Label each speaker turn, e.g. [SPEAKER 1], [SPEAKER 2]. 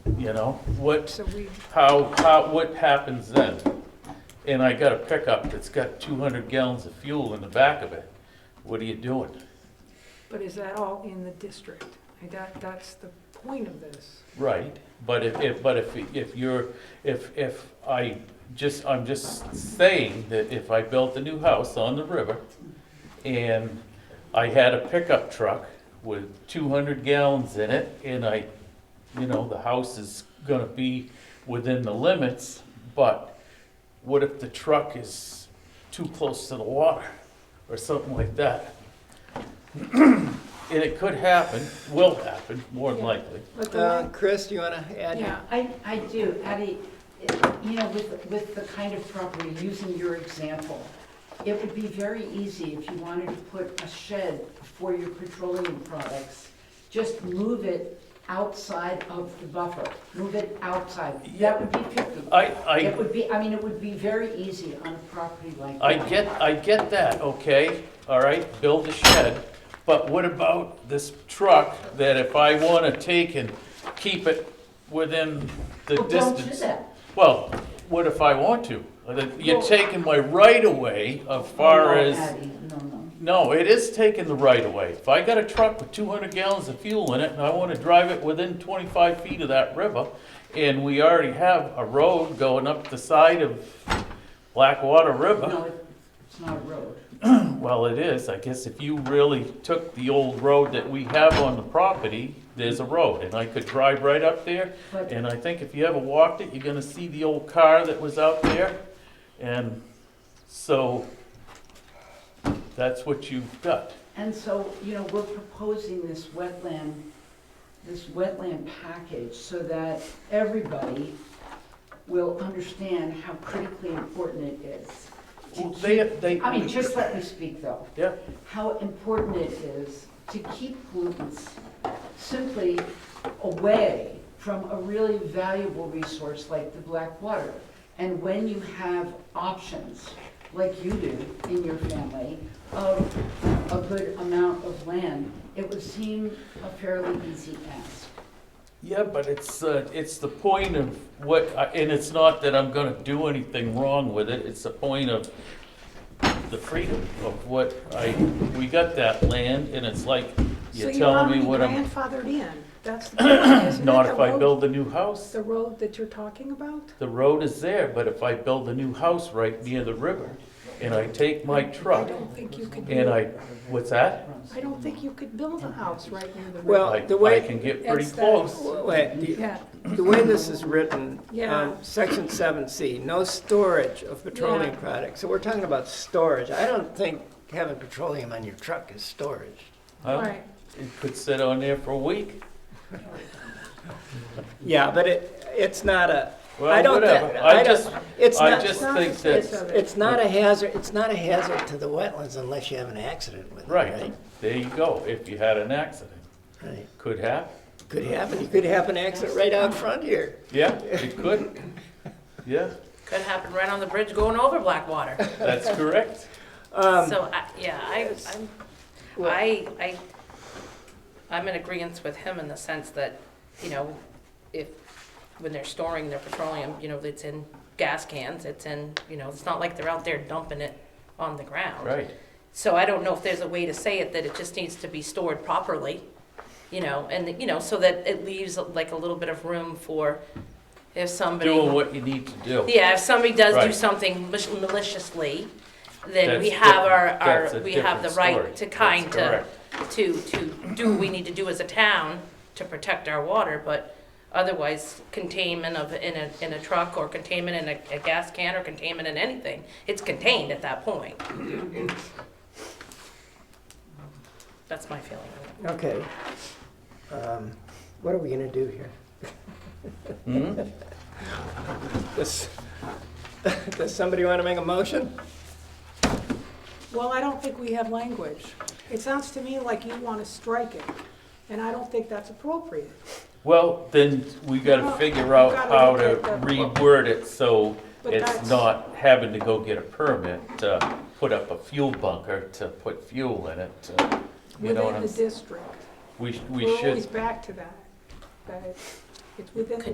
[SPEAKER 1] you know? What,
[SPEAKER 2] So we,
[SPEAKER 1] how, how, what happens then? And I got a pickup that's got two hundred gallons of fuel in the back of it. What are you doing?
[SPEAKER 2] but is that all in the district? Like, That, that's the point of this.
[SPEAKER 1] Right, but if, if, but if, if you're, if, if I just, I'm just saying that if I built a new house on the river and I had a pickup truck with two hundred gallons in it and I, you know, the house is gonna be within the limits, but what if the truck is too close to the water or something like that? And it could happen, will happen, more than
[SPEAKER 2] Yeah.
[SPEAKER 1] likely.
[SPEAKER 2] But the
[SPEAKER 3] Uh,
[SPEAKER 2] one,
[SPEAKER 3] Chris, do you want to add?
[SPEAKER 4] Yeah, I, I do, Addie, it- you know, with, with the kind of property, using your example, it would be very easy if you wanted to put a shed for your petroleum products, just move it outside of the buffer, move it outside, that would be fifty.
[SPEAKER 1] I,
[SPEAKER 4] It
[SPEAKER 1] I,
[SPEAKER 4] would be, I mean, it would be very easy on a property like that.
[SPEAKER 1] I get, I get that, okay, all right, build a shed, but what about this truck that if I wanna take and keep it within the
[SPEAKER 4] Well, don't do
[SPEAKER 1] distance?
[SPEAKER 4] that.
[SPEAKER 1] Well, what if I want to? Uh, that- You're
[SPEAKER 4] Well-
[SPEAKER 1] taking my right of way as far
[SPEAKER 4] No,
[SPEAKER 1] as,
[SPEAKER 4] Addie, No, no,
[SPEAKER 1] no, it is taking the right of way. If I got a truck with two hundred gallons of fuel in it and I wanna drive it within twenty-five feet of that river, and we already have a road going up the side of Blackwater River.
[SPEAKER 4] no, it- it's not a road.
[SPEAKER 1] Well, it is, I guess if you really took the old road that we have on the property, there's a road, and I could drive right up there.
[SPEAKER 4] But-
[SPEAKER 1] And I think if you ever walked it, you're gonna see the old car that was out there, and so that's what you've got.
[SPEAKER 4] And so, you know, we're proposing this wetland, this wetland package so that everybody will understand how critically important it is. to
[SPEAKER 1] Well, They,
[SPEAKER 4] keep-
[SPEAKER 1] they.
[SPEAKER 4] I mean, just let me speak though,
[SPEAKER 1] Yeah,
[SPEAKER 4] how important it is to keep pollutants simply away from a really valuable resource like the black water. And when you have options, like you do in your family, of a good amount of land, it would seem a fairly easy ask.
[SPEAKER 1] yeah, but it's, uh, it's the point of what, I- and it's not that I'm gonna do anything wrong with it, it's the point of the freedom of what I, we got that land, and it's like,
[SPEAKER 2] so
[SPEAKER 1] you're
[SPEAKER 2] you're
[SPEAKER 1] telling
[SPEAKER 2] already
[SPEAKER 1] me what I'm,
[SPEAKER 2] grandfathered in. That's the point, isn't it?
[SPEAKER 1] not
[SPEAKER 2] The
[SPEAKER 1] if I
[SPEAKER 2] road-
[SPEAKER 1] build a new house.
[SPEAKER 2] The road that you're talking about?
[SPEAKER 1] The road is there, but if I build a new house right near the river, and I take my
[SPEAKER 2] I
[SPEAKER 1] truck,
[SPEAKER 2] don't think you could,
[SPEAKER 1] and
[SPEAKER 2] do-
[SPEAKER 1] I, what's that?
[SPEAKER 2] I don't think you could build a house right near the road.
[SPEAKER 3] Well,
[SPEAKER 1] I,
[SPEAKER 3] the
[SPEAKER 1] I
[SPEAKER 3] way-
[SPEAKER 1] can get pretty
[SPEAKER 2] That's that-
[SPEAKER 1] close.
[SPEAKER 3] Wait, the-
[SPEAKER 2] Yeah,
[SPEAKER 3] the way this is written,
[SPEAKER 2] Yeah.
[SPEAKER 3] um, section seven C, no storage of petroleum
[SPEAKER 2] Yeah.
[SPEAKER 3] products. So we're talking about storage. I don't think having petroleum on your truck is storage.
[SPEAKER 1] huh?
[SPEAKER 2] right.
[SPEAKER 1] It could sit on there for a week.
[SPEAKER 3] Yeah, but it, it's not a, I
[SPEAKER 1] Well,
[SPEAKER 3] don't, thi-
[SPEAKER 1] whatever,
[SPEAKER 3] I
[SPEAKER 1] I just,
[SPEAKER 3] don't, it's
[SPEAKER 1] I
[SPEAKER 3] not,
[SPEAKER 1] just
[SPEAKER 2] Not
[SPEAKER 1] think
[SPEAKER 2] the
[SPEAKER 1] that-
[SPEAKER 2] face of it.
[SPEAKER 3] it's not a hazard, it's not a hazard to the wetlands unless you have an accident with it,
[SPEAKER 1] right,
[SPEAKER 3] right?
[SPEAKER 1] there you go, if you had an accident,
[SPEAKER 3] Right.
[SPEAKER 1] could happen,
[SPEAKER 3] Could happen, it could happen accident right out front here.
[SPEAKER 1] yeah, it could, yeah,
[SPEAKER 5] Could happen right on the bridge going over Blackwater.
[SPEAKER 1] that's correct.
[SPEAKER 5] So, I- yeah, I, I'm, I, I, I'm in agreement with him in the sense that, you know, if, when they're storing their petroleum, you know, it's in gas cans, it's in, you know, it's not like they're out there dumping it on the ground.
[SPEAKER 1] Right,
[SPEAKER 5] So I don't know if there's a way to say it, that it just needs to be stored properly, you know, and, you know, so that it leaves like a little bit of room for if somebody.
[SPEAKER 1] doing what you need to do.
[SPEAKER 5] Yeah, if somebody does do
[SPEAKER 1] Right.
[SPEAKER 5] something mal- maliciously, then we
[SPEAKER 1] That's
[SPEAKER 5] have our,
[SPEAKER 1] different. That's a
[SPEAKER 5] our, we have the
[SPEAKER 1] different story.
[SPEAKER 5] right to kind
[SPEAKER 1] That's
[SPEAKER 5] to,
[SPEAKER 1] correct.
[SPEAKER 5] to, to do what we need to do as a town to protect our water, but otherwise containment of, in a, in a truck or containment in a, a gas can or containment in anything, it's contained at that point. That's my feeling.
[SPEAKER 3] Okay. Um, What are we gonna do here?
[SPEAKER 1] Hmm?
[SPEAKER 3] Does, does somebody want to make a motion?
[SPEAKER 2] Well, I don't think we have language. It sounds to me like you want to strike it, and I don't think that's appropriate.
[SPEAKER 1] Well, then we gotta
[SPEAKER 2] Well,
[SPEAKER 1] figure out
[SPEAKER 2] we've gotta
[SPEAKER 1] how
[SPEAKER 2] look
[SPEAKER 1] to
[SPEAKER 2] at the-
[SPEAKER 1] reword it so
[SPEAKER 2] But
[SPEAKER 1] it's
[SPEAKER 2] that's-
[SPEAKER 1] not having to go get a permit to put up a fuel bunker to put fuel in it, to- you know what
[SPEAKER 2] Within
[SPEAKER 1] I'm,
[SPEAKER 2] the
[SPEAKER 1] s-
[SPEAKER 2] district.
[SPEAKER 1] we, sh- we
[SPEAKER 2] We're always
[SPEAKER 1] should,
[SPEAKER 2] back to that, that it's- it's within the